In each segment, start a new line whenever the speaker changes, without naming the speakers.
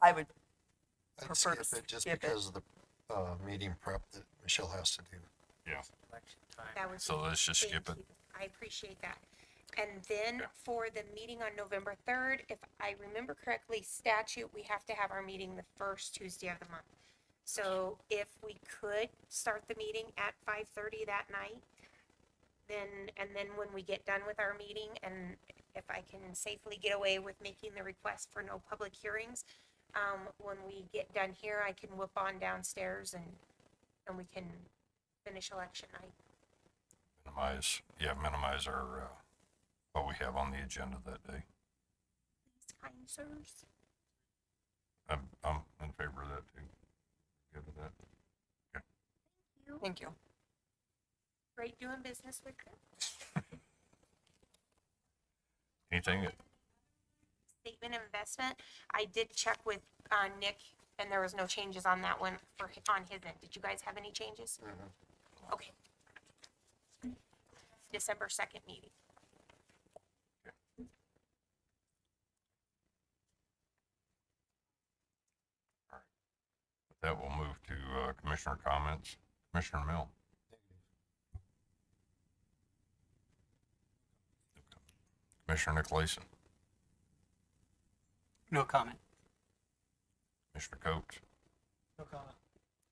I would
I'd
prefer
skip
to
it just
skip it.
because of the, uh, meeting prep that Michelle has to do.
Yeah,
That was.
So let's just skip
thank
it.
you. I appreciate that. And then for the meeting on November third, if I remember correctly, statute, we have to have our meeting the first Tuesday of the month. So if we could start the meeting at five thirty that night, then, and then when we get done with our meeting, and if I can safely get away with making the request for no public hearings, um, when we get done here, I can whip on downstairs and, and we can finish election night.
minimize, yeah, minimize our, uh, what we have on the agenda that day.
These kind sirs.
I'm, I'm in favor of that too. Good with that.
You,
Thank you.
great doing business with you.
Anything, that-
Statement of investment, I did check with, uh, Nick, and there was no changes on that one for, hi- on his end. Did you guys have any changes?
Mm-hmm.
Okay. December second meeting.
that will move to, uh, commissioner comments. Commissioner Mill. Commissioner Nicolason,
No comment.
Commissioner Coates,
No comment.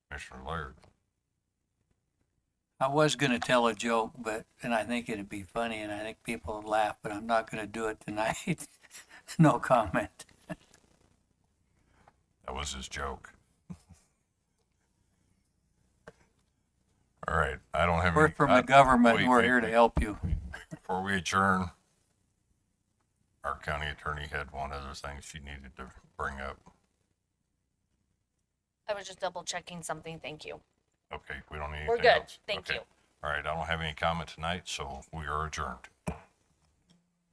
Commissioner Laird.
I was gonna tell a joke, but, and I think it'd be funny and I think people would laugh, but I'm not gonna do it tonight. No comment.
That was his joke. All right, I don't have any.
We're from the
I-
government.
wait,
We're
wait,
here to
wait.
help you.
Before we adjourn, our county attorney had one other thing she needed to bring up.
I was just double checking something. Thank you.
Okay, we don't need
We're
anything
good.
else.
Thank
Okay.
you.
All right, I don't have any comment tonight, so we are adjourned.